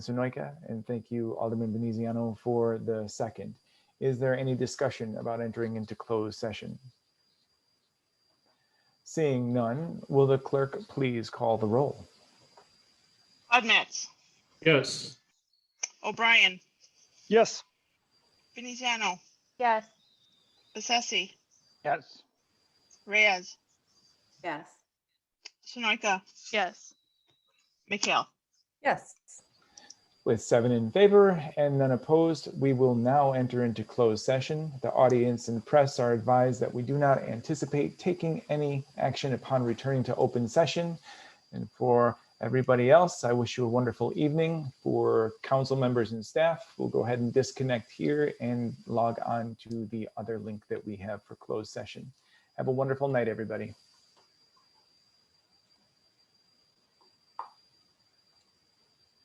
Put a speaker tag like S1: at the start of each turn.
S1: Mr. Noika, and thank you, Alderman Veneziano, for the second. Is there any discussion about entering into closed session? Seeing none, will the clerk please call the roll?
S2: Budmets,
S3: Yes.
S2: O'Brien,
S4: Yes.
S2: Veneziano,
S5: Yes.
S2: Bessesi,
S4: Yes.
S2: Reyes,
S5: Yes.
S2: Sunoika,
S5: Yes.
S2: McHale.
S5: Yes.
S1: With seven in favor and none opposed, we will now enter into closed session. The audience and press are advised that we do not anticipate taking any action upon returning to open session. And for everybody else, I wish you a wonderful evening. For council members and staff, we'll go ahead and disconnect here and log on to the other link that we have for closed session. Have a wonderful night, everybody.